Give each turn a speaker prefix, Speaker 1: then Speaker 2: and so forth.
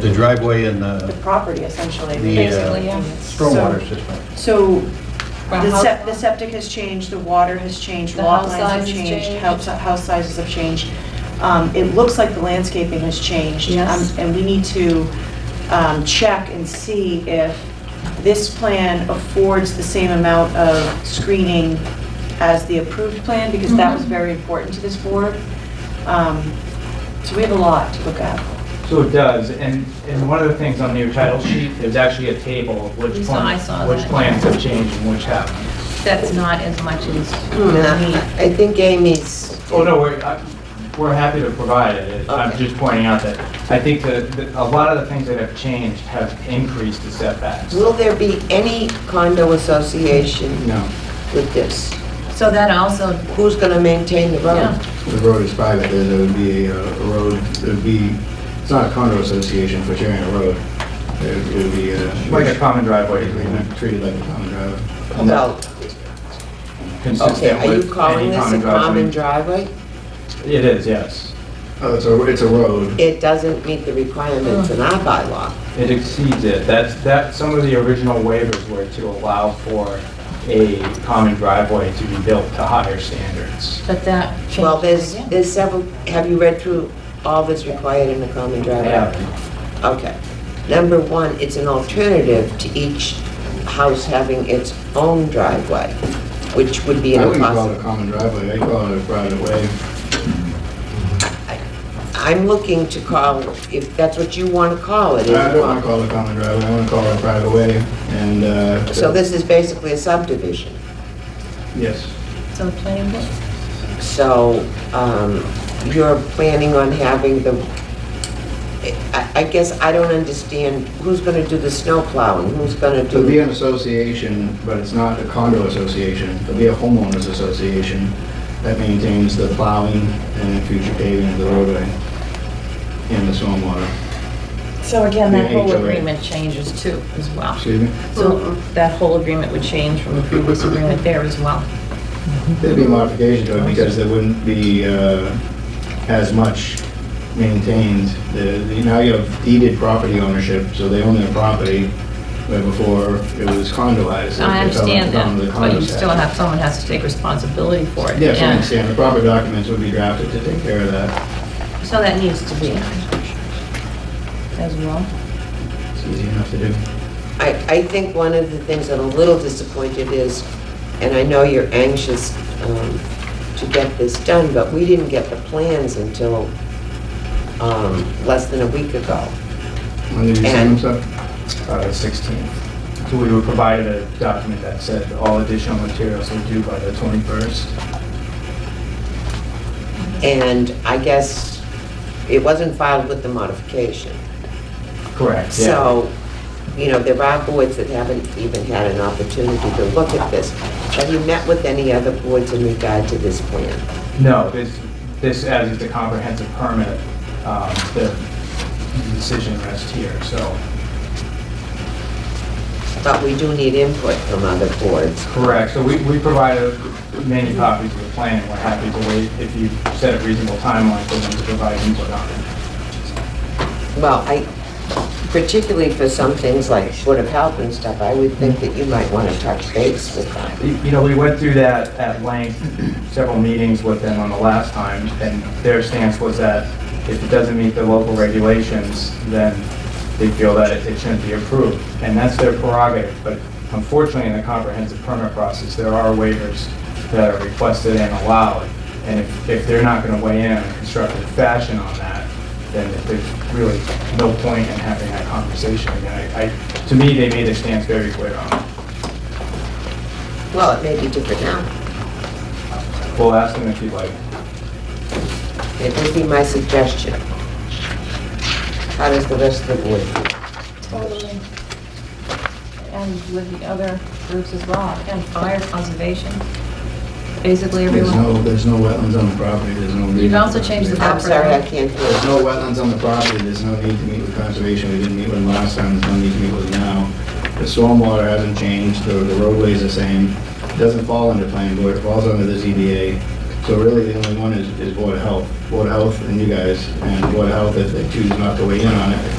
Speaker 1: the driveway and
Speaker 2: the
Speaker 1: the
Speaker 2: property essentially.
Speaker 1: the,
Speaker 3: Basically,
Speaker 1: uh,
Speaker 3: yeah.
Speaker 1: stormwater system.
Speaker 2: So
Speaker 3: Well,
Speaker 2: the
Speaker 3: how-
Speaker 2: sep- the septic has changed, the water has changed,
Speaker 3: The
Speaker 2: lot
Speaker 3: house
Speaker 2: lines have
Speaker 3: size has
Speaker 2: changed,
Speaker 3: changed.
Speaker 2: house house sizes have changed. Um, It looks like the landscaping has changed.
Speaker 3: Yes.
Speaker 2: Um, And we need to um, check and see if this plan affords the same amount of screening as the approved plan, because that was
Speaker 3: Mhm.
Speaker 2: very important to this board. Um, So we have a lot to look at.
Speaker 4: So it does, and, and one of the things on your title sheet, there's actually a table of which
Speaker 3: We saw- I
Speaker 4: plans,
Speaker 3: saw
Speaker 4: which
Speaker 3: that.
Speaker 4: plans have changed and which haven't.
Speaker 3: That's not as much as
Speaker 2: Hmm,
Speaker 5: Nah,
Speaker 3: we,
Speaker 5: I think Amy's,
Speaker 4: Oh, no, we're, I- we're happy to provide it, I'm
Speaker 5: Okay.
Speaker 4: just pointing out that, I think that, that a lot of the things that have changed have increased the setbacks.
Speaker 5: will there be any condo association
Speaker 4: No.
Speaker 5: with this?
Speaker 3: so that also,
Speaker 5: Who's gonna maintain the
Speaker 3: yeah.
Speaker 5: road?
Speaker 6: The road is private, there there would be a a road, it would be, it's not a condo association for sharing a road. It would- it would be uh, a...
Speaker 4: Like a common driveway agreement,
Speaker 6: Treated treated like a common driveway. And
Speaker 5: Well, okay,
Speaker 4: consistent
Speaker 5: are
Speaker 4: with
Speaker 5: you calling
Speaker 4: any
Speaker 5: this a
Speaker 4: common
Speaker 5: common
Speaker 4: driveway.
Speaker 5: driveway?
Speaker 4: It is, yes.
Speaker 6: that- Oh, it's a, it's a road.
Speaker 5: It doesn't meet the requirements in our bylaw.
Speaker 4: It exceeds it. That's, that, some of the original waivers were to allow for a common driveway to be built to higher standards.
Speaker 3: But that changed.
Speaker 5: Well, there's,
Speaker 3: again.
Speaker 5: there's several, have you read through all that's required in a common driveway? Okay. Number one, it's an alternative to each house having its own driveway, which would be
Speaker 6: I
Speaker 5: an
Speaker 6: wouldn't call it a
Speaker 5: impossible.
Speaker 6: common driveway, I'd call it a private way.
Speaker 5: I'm looking to call, if that's what you want to call it. is
Speaker 6: I
Speaker 5: a
Speaker 6: don't want to call it a common driveway, I want to call it a private way, and... uh,
Speaker 5: So this is basically a subdivision.
Speaker 6: Yes.
Speaker 3: So planning board,
Speaker 5: So um, you're planning on having the, I I guess I don't understand, who's going to do the snow plowing? Who's going to
Speaker 6: So It'll be an
Speaker 5: do?
Speaker 6: association, but it's not a condo association. It'll be a homeowners association that maintains the plowing and future paving of the roadway and the stormwater.
Speaker 3: so again, that
Speaker 6: The
Speaker 3: whole
Speaker 6: HOA.
Speaker 3: agreement changes too, as well.
Speaker 6: Excuse me?
Speaker 3: So that whole agreement would change from the previous agreement there as well.
Speaker 6: There'd be a modification to it because there wouldn't be uh, as much maintained. The- the- Now you have deeded property ownership, so they own their property, where before it was condoized.
Speaker 3: I
Speaker 6: It fell
Speaker 3: understand
Speaker 6: under the
Speaker 3: that, but
Speaker 6: condo
Speaker 3: you still
Speaker 6: statute.
Speaker 3: have, someone has to take responsibility for it.
Speaker 6: Yes, I
Speaker 3: Yeah.
Speaker 6: understand. The proper documents would be drafted to take care of that.
Speaker 3: So that needs to be as well.
Speaker 6: It's easy enough to do.
Speaker 5: I I think one of the things I'm a little disappointed is, and I know you're anxious um, to get this done, but we didn't get the plans until um, less than a week ago.
Speaker 6: When did you send them, sir?
Speaker 4: Uh, 16. So we were provided a document that said all additional materials are due by the 21st.
Speaker 5: And I guess it wasn't filed with the modification.
Speaker 4: Correct, yeah.
Speaker 5: So, you know, there are boards that haven't even had an opportunity to look at this. Have you met with any other boards in regard to this plan?
Speaker 4: No, this, this, as it's a comprehensive permit, um, the decision rests here, so.
Speaker 5: But we do need input from other boards.
Speaker 4: Correct, so we, we provided many copies of the plan, we're happy to wait if you set a reasonable timeline for them to provide input on it.
Speaker 5: Well, I, particularly for some things like Board of Health and stuff, I would think that you might want to touch base with them.
Speaker 4: You- You know, we went through that at length, several meetings with them on the last time, and their stance was that if it doesn't meet the local regulations, then they feel that it it shouldn't be approved, and that's their prerogative, but unfortunately, in the comprehensive permit process, there are waivers that are requested and allowed, and if, if they're not gonna weigh in in a constructive fashion on that, then there's really no point in having that conversation again. I, I- to me, they made their stance very clear on it.
Speaker 5: Well, it may be different now.
Speaker 4: We'll ask them if you'd like.
Speaker 5: It would be my suggestion. How does the rest of the board feel?
Speaker 3: Totally. And with the other groups as well, and fire conservation, basically
Speaker 6: There's
Speaker 3: everyone.
Speaker 6: no, there's no wetlands on the property, there's no... need
Speaker 3: You've
Speaker 6: for
Speaker 3: also changed the-
Speaker 5: I'm sorry, I can't hear.
Speaker 6: There's no wetlands on the property, there's no need to meet with conservation, we didn't meet with them last time, there's no need to meet with them now. The stormwater hasn't changed, the the roadway's the same, it doesn't fall under planning board, it falls under the ZBA. So really, the only one is, is Board of Health, Board of Health and you guys, and Board of Health, if they choose not to weigh in on it,